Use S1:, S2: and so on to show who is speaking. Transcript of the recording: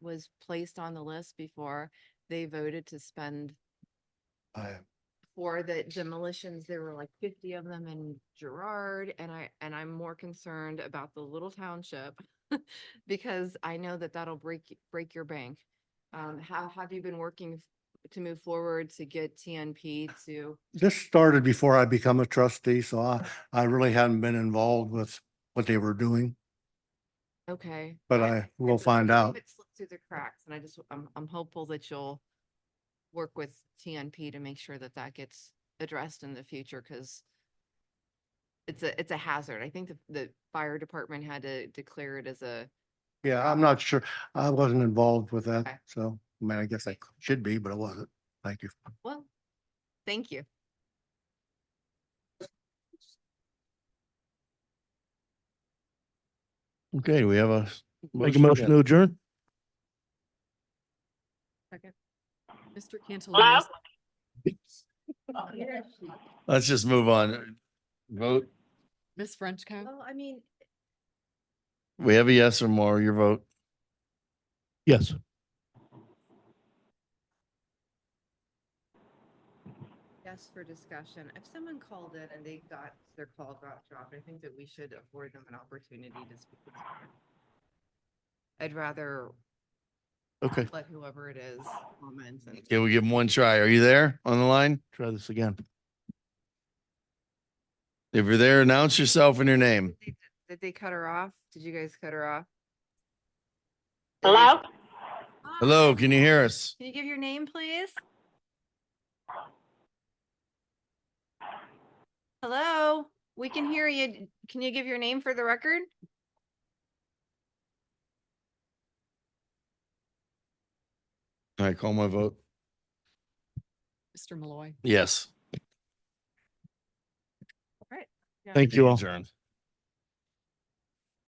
S1: was placed on the list before they voted to spend
S2: I,
S1: for the demolitions, there were like fifty of them in Gerard, and I, and I'm more concerned about the little township. Because I know that that'll break, y- break your bank. Um, how, have you been working f- to move forward to get TNP to?
S2: this started before I become a trustee, so I, I really hadn't been involved with what they were doing,
S1: Okay.
S2: but I will
S1: believe
S2: find out.
S1: It slipped through the cracks, and I just, I'm, I'm hopeful that you'll work with TNP to make sure that that gets addressed in the future, because it's a, it's a hazard. I think the, the fire department had to declare it as a,
S2: Yeah, I'm not sure. I wasn't involved with
S1: Okay.
S2: that, so, I mean, I guess I should be, but I wasn't. Thank you.
S1: well, thank you.
S3: Okay, we have a, s- make a
S2: Motion to
S3: motion to adjourn?
S4: Mr. Cantala Mesa.
S3: Let's just move on. Vote.
S4: Ms. Frenchco.
S5: Well, I mean,
S3: We have a yes or more, your vote. Yes.
S1: Yes, for discussion. If someone called in and they got, their call got dropped, I think that we should afford them an opportunity to speak. with someone. I'd rather
S3: Okay.
S1: let whoever it is comment and.
S3: Can we give him one try? Are you there on the line? Try this again. If you're there, announce yourself and your name.
S1: Did they- did they cut her off? Did you guys cut her off?
S6: Hello?
S3: Hello, can you hear us?
S1: Can you give your name, please? Hello, we can hear you. Can you give your name for the record?
S3: I call my vote.
S4: Mr. Malloy.
S3: Yes.
S4: Yeah.
S3: Thank you all.
S6: Adjourned.